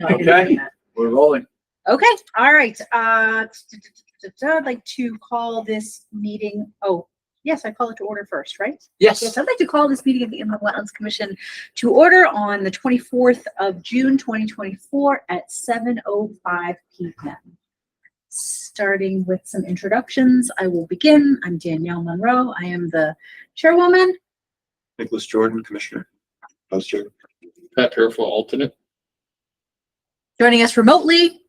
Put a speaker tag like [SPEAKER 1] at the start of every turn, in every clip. [SPEAKER 1] No, I didn't
[SPEAKER 2] Okay.
[SPEAKER 1] do that.
[SPEAKER 2] We're rolling.
[SPEAKER 1] Okay, all right. Uh, t- t- t- t- I'd like to call this meeting, oh, yes, I call it to order first, right? Yes,
[SPEAKER 2] Yes.
[SPEAKER 1] I'd like to call this meeting of the Inland Wetlands Commission to order on the 24th of June, 2024 at 7:05 PM. Starting with some introductions, I will begin. I'm Danielle Monroe. I am the chairwoman.
[SPEAKER 3] Nicholas Jordan, Commissioner, Vice Chair.
[SPEAKER 4] Pat Fairfield, alternate.
[SPEAKER 1] Joining us remotely,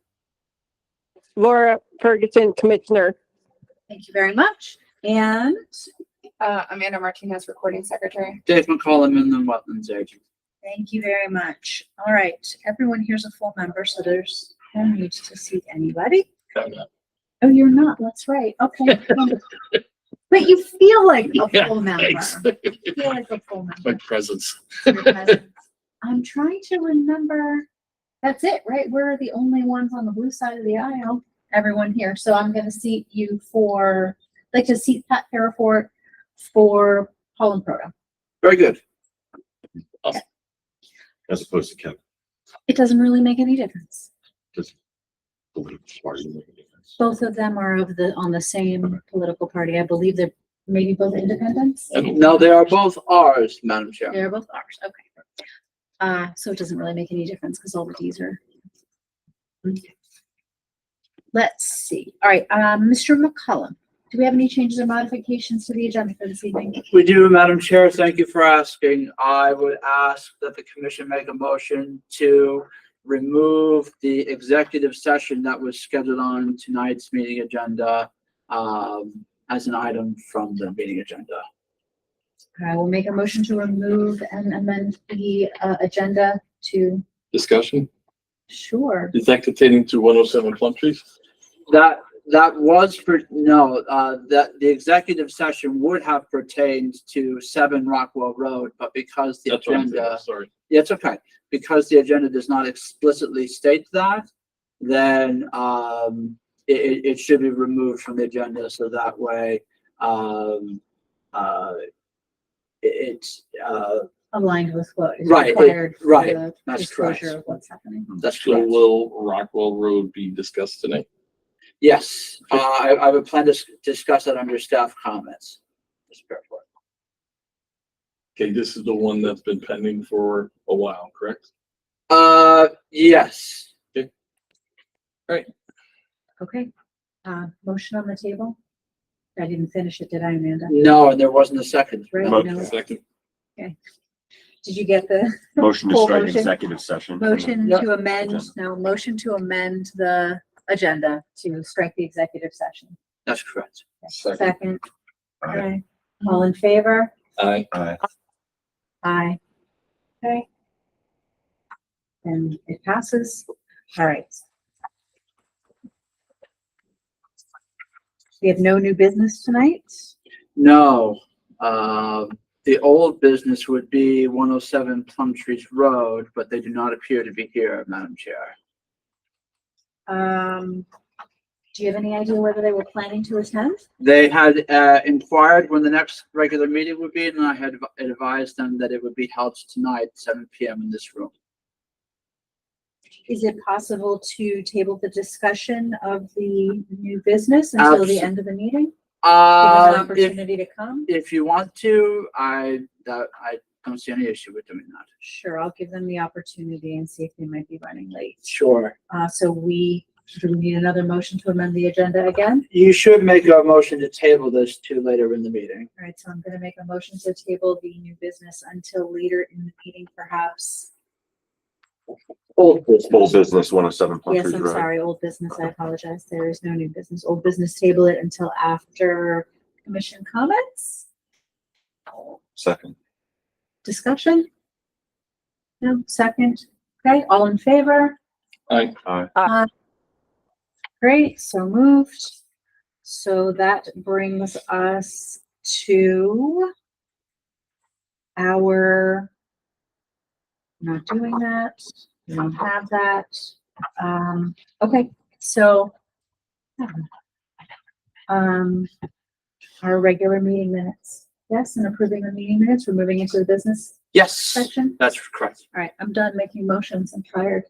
[SPEAKER 5] Laura Ferguson, Commissioner.
[SPEAKER 1] thank you very much. And
[SPEAKER 6] Uh, Amanda Martinez, recording secretary.
[SPEAKER 2] Dave McCollum in the Wetlands Agent.
[SPEAKER 1] Thank you very much. All right, everyone here's a full member, so there's no need to seat anybody.
[SPEAKER 4] I'm not.
[SPEAKER 1] Oh, you're not, that's right, okay. But you feel like a
[SPEAKER 4] Yeah,
[SPEAKER 1] full member.
[SPEAKER 4] Thanks.
[SPEAKER 1] You feel like a full member.
[SPEAKER 4] My presence.
[SPEAKER 1] to your presence. I'm trying to remember, that's it, right? We're the only ones on the blue side of the aisle, everyone here. So I'm gonna seat you for, like to seat Pat Parafort for Paul and Proto.
[SPEAKER 2] Very good.
[SPEAKER 3] As opposed to Kevin.
[SPEAKER 1] It doesn't really make any difference.
[SPEAKER 3] political party.
[SPEAKER 1] Both of them are of the, on the same political party. I believe they're maybe both independents.
[SPEAKER 4] I don't-
[SPEAKER 2] No, they are both ours, Madam Chair.
[SPEAKER 1] They're both ours, okay. Uh, so it doesn't really make any difference because all the Ds are. Let's see. All right, um, Mr. McCollum, do we have any changes or modifications to the agenda for this evening?
[SPEAKER 2] We do, Madam Chair. Thank you for asking. I would ask that the commission make a motion to remove the executive session that was scheduled on tonight's meeting agenda um, as an item from the meeting agenda.
[SPEAKER 1] I will make a motion to remove and amend the, uh, agenda to,
[SPEAKER 4] Discussion,
[SPEAKER 1] sure.
[SPEAKER 4] is that containing to one oh seven Plum Trees?
[SPEAKER 2] That, that was for, no, uh, that the executive session would have pertained to seven Rockwell Road, but because the
[SPEAKER 4] That's what I'm thinking,
[SPEAKER 2] agenda,
[SPEAKER 4] Sorry.
[SPEAKER 2] yeah, it's okay. Because the agenda does not explicitly state that, then, um, it, it, it should be removed from the agenda, so that way, um, uh, it- it's, uh,
[SPEAKER 1] Aligned with what is
[SPEAKER 2] Right, it-
[SPEAKER 1] required. for
[SPEAKER 2] right,
[SPEAKER 1] the
[SPEAKER 2] that's
[SPEAKER 1] disclosure
[SPEAKER 2] correct.
[SPEAKER 1] of What's happening.
[SPEAKER 2] that's
[SPEAKER 4] So
[SPEAKER 2] correct.
[SPEAKER 4] will Rockwell Road be discussed tonight?
[SPEAKER 2] Yes, uh, I, I would plan to s- discuss that under staff comments. Mr. Fairclough.
[SPEAKER 4] Okay, this is the one that's been pending for a while, correct?
[SPEAKER 2] Uh, yes.
[SPEAKER 1] Okay, uh, motion on the table? I didn't finish it, did I, Amanda?
[SPEAKER 2] No, and there wasn't a second.
[SPEAKER 1] Right,
[SPEAKER 2] No.
[SPEAKER 1] no.
[SPEAKER 4] Second,
[SPEAKER 1] Did you get the
[SPEAKER 3] Motion to
[SPEAKER 1] Full
[SPEAKER 3] strike
[SPEAKER 1] motion.
[SPEAKER 3] executive session.
[SPEAKER 1] motion
[SPEAKER 2] Yeah.
[SPEAKER 1] to amend,
[SPEAKER 3] Agenda.
[SPEAKER 1] no, motion to amend the agenda to strike the executive session?
[SPEAKER 2] That's correct.
[SPEAKER 4] second,
[SPEAKER 1] Second,
[SPEAKER 3] Aye.
[SPEAKER 1] okay, all in favor?
[SPEAKER 4] aye.
[SPEAKER 3] Aye.
[SPEAKER 1] Aye. Okay. And it passes, all right. We have no new business tonight?
[SPEAKER 2] No, um, the old business would be one oh seven Plum Trees Road, but they do not appear to be here, Madam Chair.
[SPEAKER 1] Um, do you have any idea whether they were planning to attend?
[SPEAKER 2] They had, uh, inquired when the next regular meeting would be, and I had adv- advised them that it would be held tonight, seven PM in this room.
[SPEAKER 1] Is it possible to table the discussion of the new business until the
[SPEAKER 2] Abs-
[SPEAKER 1] end of the meeting? Give us an
[SPEAKER 2] Uh, if,
[SPEAKER 1] opportunity to come?
[SPEAKER 2] if you want to, I, that, I don't see any issue with doing that.
[SPEAKER 1] Sure, I'll give them the opportunity and see if they might be running late.
[SPEAKER 2] Sure.
[SPEAKER 1] Uh, so we, do we need another motion to amend the agenda again?
[SPEAKER 2] You should make a motion to table this to later in the meeting.
[SPEAKER 1] All right, so I'm gonna make a motion to table the new business until later in the meeting perhaps.
[SPEAKER 2] Old
[SPEAKER 3] Full business, one oh seven Plum
[SPEAKER 1] Yes,
[SPEAKER 3] Trees
[SPEAKER 1] I'm
[SPEAKER 3] Road.
[SPEAKER 1] sorry, old business, I apologize. There is no new business. Old business, table it until after commission comments?
[SPEAKER 3] Second.
[SPEAKER 1] Discussion? No, second, okay, all in favor?
[SPEAKER 4] Aye.
[SPEAKER 3] Aye.
[SPEAKER 1] Aye. Great, so moved. So that brings us to our not doing that, we don't have that. Um, okay, so um, our regular meeting minutes, yes, and approving the meeting minutes, we're moving into the business
[SPEAKER 2] Yes,
[SPEAKER 1] section.
[SPEAKER 2] that's correct.
[SPEAKER 1] All right, I'm done making motions. I'm tired.